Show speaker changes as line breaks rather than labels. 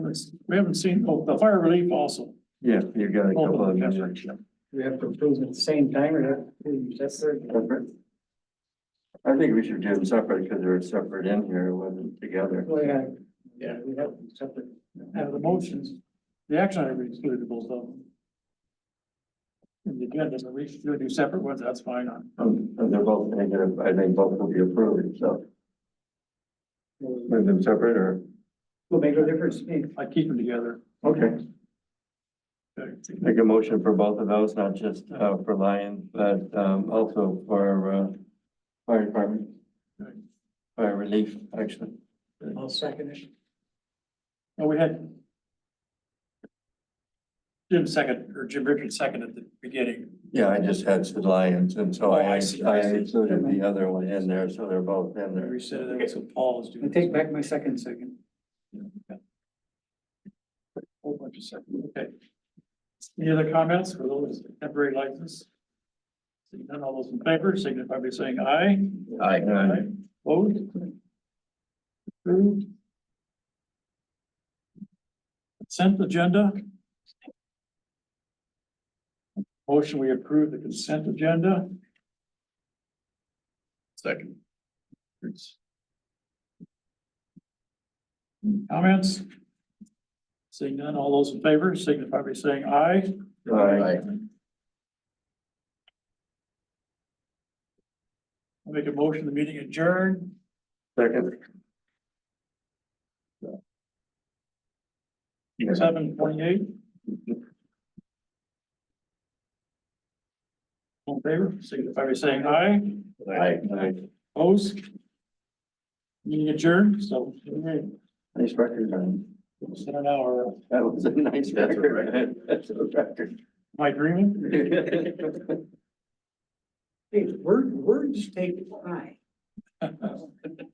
this. We haven't seen, oh, the fire relief also.
Yeah, you got a couple of them.
Well,
We have to approve at the same time or have to, that's
Separate? I think we should do them separate because they're separate in here, it wasn't together.
Well, yeah, yeah, we have separate.
the motions, the action item included both of them. And the agenda, so we should do separate ones, that's fine.
Um, and they're both negative, I think both will be approved, so.
Will
Move them separate or?
make no difference to me.
I keep them together.
Okay.
Okay.
Make a motion for both of those, not just, uh, for Lion, but, um, also for, uh, fire department.
Right.
Fire relief, actually.
I'll second it.
Oh, we had. Jim second, or Jim Richards second at the beginning.
Yeah, I just had said Lions and so
Oh,
I,
I
I
see, I see.
included the other one in there, so they're both in
We
there.
said that, so Paul is
I
doing.
take back my second second.
Whole bunch of stuff, okay. Any other comments for those temporary licenses? Seeing none, all those in favor, signify by saying aye.
Aye.
Opposed? Approved. Consent agenda. Motion, we approve the consent agenda. Second. Comments? Seeing none, all those in favor signify by saying aye.
Aye.
I'll Make a motion, the meeting adjourned.
Second.
seven twenty-eight. All in favor, signify by saying aye,
Aye.
opposed. Meeting adjourned, so, okay,
Nice record, man.
it's been an hour,
That was a nice
That's a
record. That's a record.
am I dreaming?
Hey, word, words take time.